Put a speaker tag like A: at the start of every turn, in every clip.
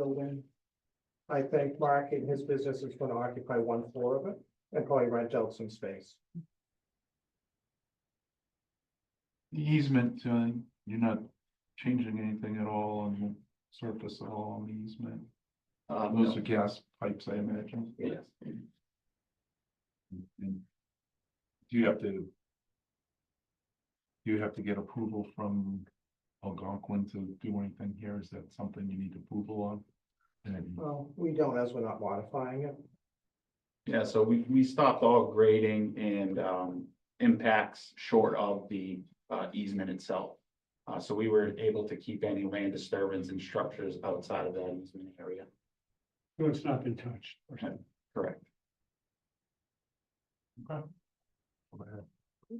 A: building. I think Mark and his business is gonna occupy one floor of it and probably rent out some space.
B: The easement, uh, you're not changing anything at all on the surface at all on the easement.
C: Uh,
B: Those
C: no.
B: are gas pipes, I imagine.
C: Yes.
B: And Do you have to? Do you have to get approval from Algonquin to do anything here? Is that something you need approval on? And
A: Well, we don't as we're not modifying it.
C: Yeah, so we, we stopped all grading and, um, impacts short of the, uh, easement itself. Uh, so we were able to keep any land disturbance and structures outside of that easement area,
D: So it's not been touched.
C: correct?
D: I,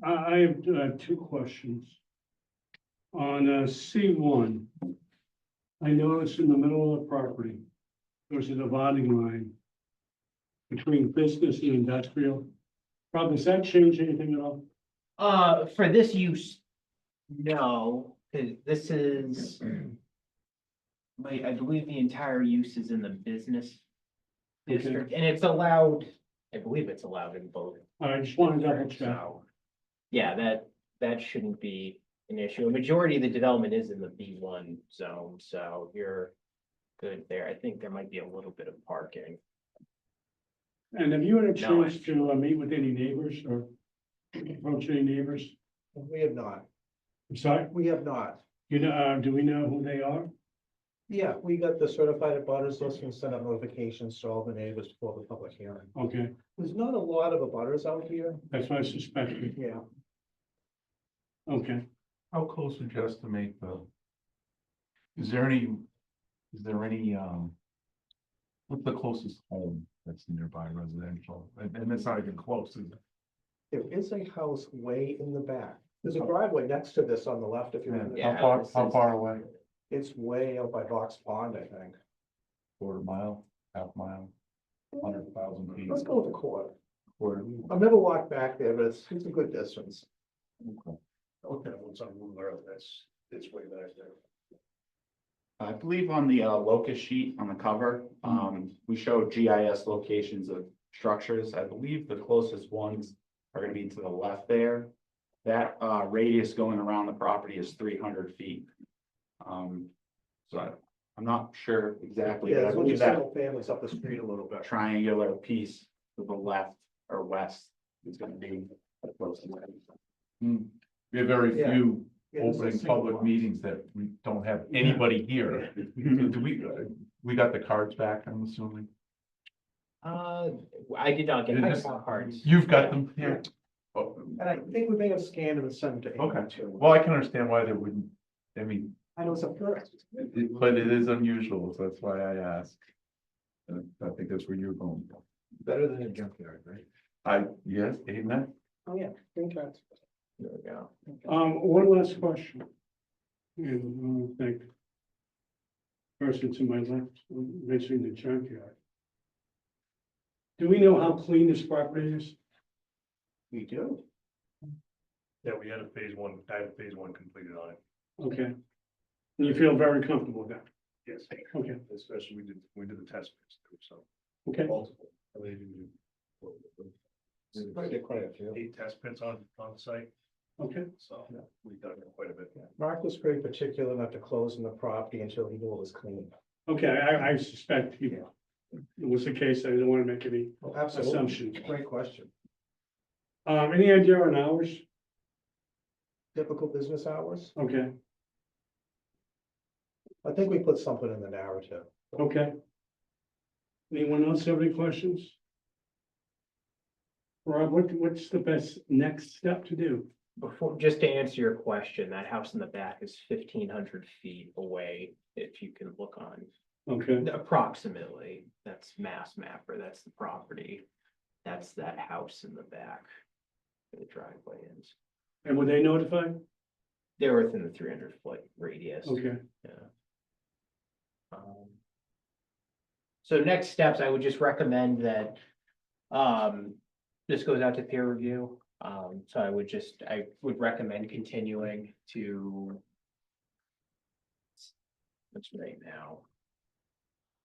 D: I have uh, two questions. On uh, C one, I noticed in the middle of the property, there's a dividing line between business and industrial. Rob, does that change anything at all?
E: Uh, for this use, no, 'cause this is. Wait, I believe the entire use is in the business
D: Okay.
E: district, and it's allowed, I believe it's allowed in both.
D: I just wanted to double check.
E: So, Yeah, that, that shouldn't be an issue. A majority of the development is in the B one zone, so you're good there. I think there might be a little bit of parking.
D: And have you had a
E: No, I-
D: chance to uh, meet with any neighbors or approach any neighbors?
A: We have not,
D: I'm sorry,
A: we have not.
D: you know, uh, do we know who they are?
A: Yeah, we got the certified abutters list and sent out notifications to all the neighbors before the public hearing.
D: Okay,
A: There's not a lot of abutters out here.
D: that's what I suspected.
A: Yeah.
D: Okay.
B: how close would you estimate the? Is there any, is there any, um? What's the closest home that's nearby residential? And, and it's not even close, is it?
A: There is a house way in the back. There's a driveway next to this on the left if you remember.
B: Yeah,
E: Yeah,
B: how far,
E: this
B: how
E: is-
B: far away?
A: It's way out by Box Pond, I think.
B: Quarter mile, half mile, hundred thousand feet.
A: Let's go with the court.
B: quarter.
A: I've never walked back there, but it's, it's a good distance.
B: Okay.
A: Okay, what's on Moon Road, that's, it's way back there.
C: I believe on the, uh, locus sheet on the cover, um, we show GIS locations of structures. I believe the closest ones are gonna be to the left there. That, uh, radius going around the property is three hundred feet. Um, so I, I'm not sure exactly,
A: Yeah,
C: but I
A: there's only
C: believe that
A: single families up the street a little bit.
C: triangular piece to the left or west is gonna be. the closest.
B: Hmm. We have very
A: Yeah.
B: few
A: Yeah, there's a
B: opening
A: single
B: public
A: one.
B: meetings that we don't have anybody here. Do we, we got the cards back, I'm assuming?
E: Uh, I did not get
B: Yeah,
E: my
B: this-
E: cards.
B: You've got them here? Oh,
A: And I think we may have scanned and sent it to.
B: Okay.
A: too.
B: well, I can understand why they wouldn't, I mean,
A: I know it's a first.
B: it- but it is unusual, so that's why I asked. And I think that's where you're going.
A: Better than a junkyard, right?
B: I, yes, amen.
A: Oh, yeah, green cards.
E: There we go.
D: Um, one last question. And I think. Person to my left mentioning the junkyard. Do we know how clean this property is?
A: We do.
F: Yeah, we had a phase one, I had a phase one completed on it,
D: Okay. And you feel very comfortable with that?
F: yes,
D: Okay,
F: especially we did, we did the test, pits too, so.
D: okay.
F: multiple. I mean, we did
A: Quite a- quite a few.
F: Eight test pits on, on site,
D: Okay,
F: so we dug in quite a bit.
A: Mark was very particular not to close on the property until he knew it was clean.
D: okay, I, I suspect you. It was the case, I didn't want to make any,
A: Oh,
D: Assumption.
A: Great question.
D: um, any idea on hours?
A: Typical business hours?
D: Okay,
A: I think we put something in the narrative.
D: okay. Anyone else have any questions? Rob, what, what's the best next step to do?
E: Before, just to answer your question, that house in the back is fifteen hundred feet away, if you can look on,
D: Okay.
E: approximately, that's Mass Mapper, that's the property. That's that house in the back. where The driveway is,
D: And were they notified?
E: they're within the three hundred foot radius.
D: Okay,
E: Um, So next steps, I would just recommend that, um, this goes out to peer review. Um, so I would just, I would recommend continuing to. What's right now?